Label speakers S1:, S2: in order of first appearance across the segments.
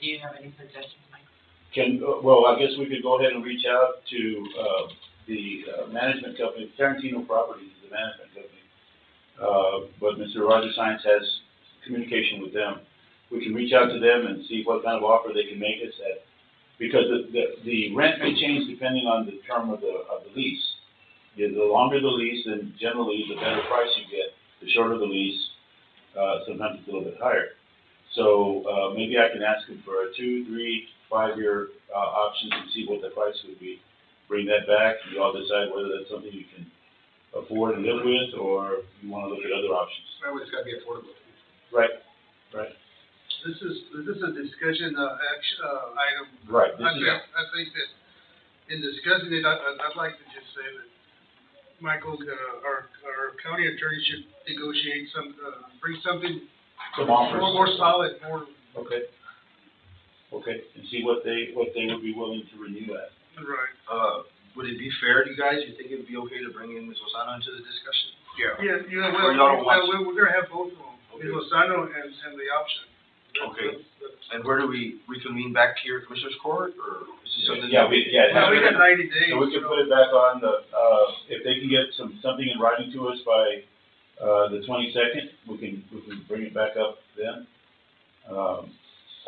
S1: do you have any suggestions, Mike?
S2: Can, uh, well, I guess we could go ahead and reach out to, uh, the uh, management company, Tarantino Properties is the management company. Uh, but Mr. Roger Science has communication with them. We can reach out to them and see what kind of offer they can make us at, because the, the, the rent may change depending on the term of the, of the lease. Yeah, The longer the lease, then generally the better price you get, the shorter the lease, uh, sometimes it's a little bit higher. So, uh, maybe I can ask him for a two, three, five-year, uh, options and see what the price would be. Bring that back, you all decide whether that's something you can afford and live with, or you wanna look at other options.
S3: That way it's gotta be affordable.
S2: Right, right.
S3: This is, this is a discussion, uh, action, uh, item.
S2: Right,
S3: I
S2: this is,
S3: think, I think that in discussing it, I, I'd, I'd like to just say that Michael's gonna, our, our county attorney should negotiate some, uh, bring something
S2: some
S3: more,
S2: offers.
S3: more solid, more
S2: Okay. Okay, and see what they, what they would be willing to renew at.
S3: right.
S4: Uh, would it be fair to you guys, you think it'd be okay to bring in Ms. Lozano into the discussion? Yeah.
S3: Yeah, you know,
S4: Or
S3: well,
S4: y'all don't want
S3: well, we're, we're gonna have both of them,
S4: Okay.
S3: Ms. Lozano and, and the option. That's-
S4: Okay.
S3: that's- that's-
S4: And where do we reconvene back here, Commissioners Court, or is this something?
S2: Yeah, we- yeah,
S3: Well, we got ninety days.
S2: So we can
S3: so-
S2: put it back on the, uh, if they can get some, something in writing to us by, uh, the twenty-second, we can, we can bring it back up then. Um,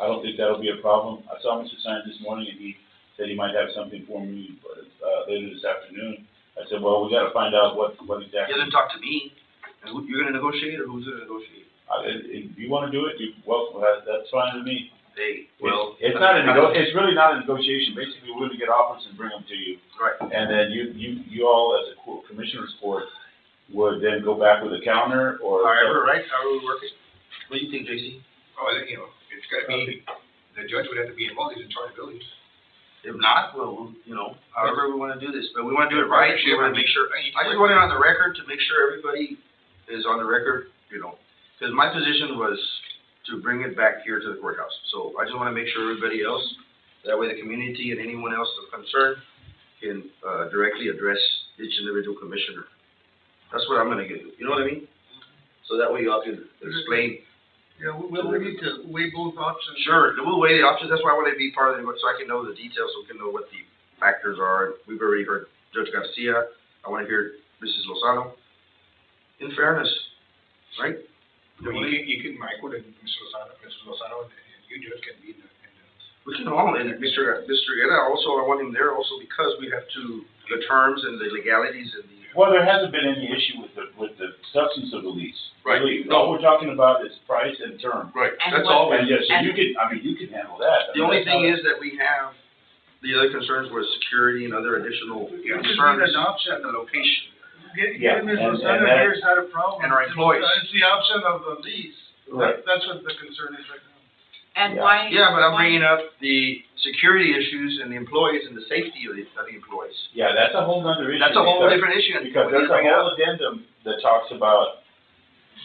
S2: I don't think that'll be a problem. I saw Mr. Sines this morning and he said he might have something for me, uh, later this afternoon. I said, well, we gotta find out what, what
S4: You
S2: exactly,
S4: didn't talk to me, and who, you're gonna negotiate, or who's gonna negotiate?
S2: I, if if you wanna do it, you, well, that, that's fine with me.
S4: They, well.
S2: It's it's not a nego, it's really not a negotiation. Basically, we're gonna get offers and bring them to you.
S4: Right,
S2: And then you, you, you all as a co- commissioners court would then go back with a counter or.
S4: however, right, however we work it. What do you think, J.C.?
S5: Oh, then, you know, it's gotta be, the judge would have to be involved, he's in charge of buildings.
S4: If not, well, you know, however we wanna do this, but we wanna do it right, we wanna make sure,
S5: I
S4: I just want it on the record to make sure everybody is on the record, you know, because my position was to bring it back here to the courthouse. So I just want to make sure everybody else, that way the community and anyone else of concern can, uh, directly address each individual commissioner. That's what I'm gonna give you, you know what I mean? So that way y'all can explain,
S3: Yeah, we, we we need to weigh both options.
S4: sure, we'll weigh the options, that's why I want to be part of it, so I can know the details, so we can know what the factors are. We've already heard Judge Garcia, I want to hear Mrs. Lozano. In fairness, right?
S5: Well, you can, you can, Michael and Mrs. Lozano, Mrs. Lozano, and and you judge can be in the, in the.
S4: We can all, and Mr. Mr. Guerra also, I want him there also because we have to, the terms and the legalities and the.
S2: Well, there hasn't been any issue with the, with the substance of the lease.
S4: Right.
S2: Really, All we're talking about is price and term.
S4: Right.
S1: And
S4: That's
S1: what-
S4: all.
S2: And yes, so you
S1: And-
S2: can, I mean, you can handle that. I
S4: The
S2: mean,
S4: only
S2: that's
S4: thing
S2: not-
S4: is that we have, the other concerns was security and other additional
S3: We just need
S4: concerns.
S3: an option.
S4: And the location.
S3: Get,
S2: Yeah,
S3: get Ms.
S2: and- and
S3: Lozano
S2: that-
S3: here is not a problem.
S4: and our employees.
S3: It's the option of the lease.
S2: Right.
S3: That's what the concern is right now.
S1: And
S2: Yeah.
S1: why?
S4: Yeah, but I'm
S1: why-
S4: bringing up the security issues and the employees and the safety of the, of the employees.
S2: Yeah, that's a whole nother issue.
S4: That's a whole
S2: because-
S4: different issue. and
S2: Because
S4: we
S2: there's
S4: didn't
S2: a
S4: bring it up.
S2: whole addendum that talks about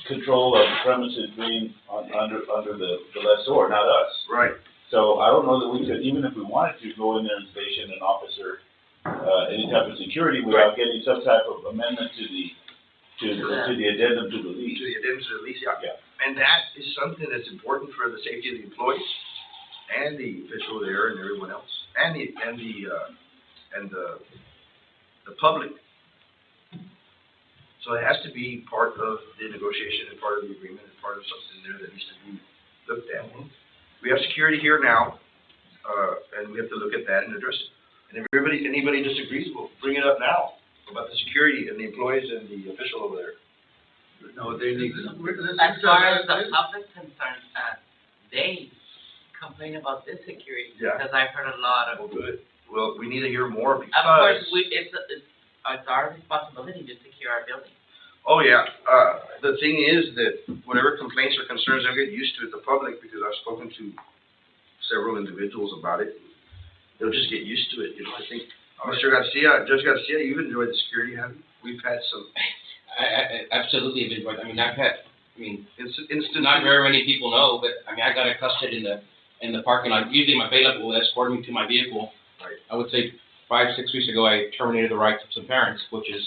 S2: control of premises being on, under, under the, the lessor, not us.
S4: Right,
S2: So I don't know that we could, even if we wanted to, go in there and station an officer, uh, any type of security without getting some type of amendment to the, to, to the addendum to the
S4: to
S2: lease.
S4: the addendums to the lease,
S2: Yeah.
S4: yeah. And that is something that's important for the safety of the employees and the official there and everyone else, and the, and the, uh, and the, the public. So it has to be part of the negotiation and part of the agreement and part of something there that needs to be looked at. We have security here now, uh, and we have to look at that and address it. And if everybody, anybody disagrees, we'll bring it up now about the security and the employees and the official over there. No, they need to.
S3: We- this
S1: As
S3: is, uh,
S1: far as the
S3: this-
S1: public concerns, uh, they complain about this security,
S4: Yeah.
S1: because I've heard a lot of.
S4: Well, good. Well, we need to hear more
S1: Of course,
S4: because,
S1: we, it's, it's, it's our responsibility to secure our building.
S4: oh yeah, uh, the thing is that whatever complaints or concerns, I get used to it, the public, because I've spoken to several individuals about it. They'll just get used to it, you know, I think, Mr. Garcia, Judge Garcia, you've enjoyed the security, haven't you? We've had some
S6: I, I, I absolutely have enjoyed, I mean, I've had, I mean,
S4: inc-
S6: not
S4: instances.
S6: very many people know, but, I mean, I got accosted in the, in the parking lot, usually my bailiff will escort me to my vehicle.
S4: Right.
S6: I would say five, six weeks ago, I terminated the rights of some parents, which is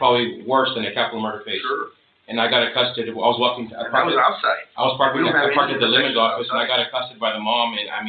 S6: probably worse than a capital murder case.
S4: Sure,
S6: and I got accosted, I was walking, I
S4: And that
S6: parked,
S4: was
S6: at-
S4: outside.
S6: I was parked,
S4: We don't have any
S6: I parked at the limit
S4: protections
S6: office, and
S4: outside.
S6: I got accosted by the mom, and I mean,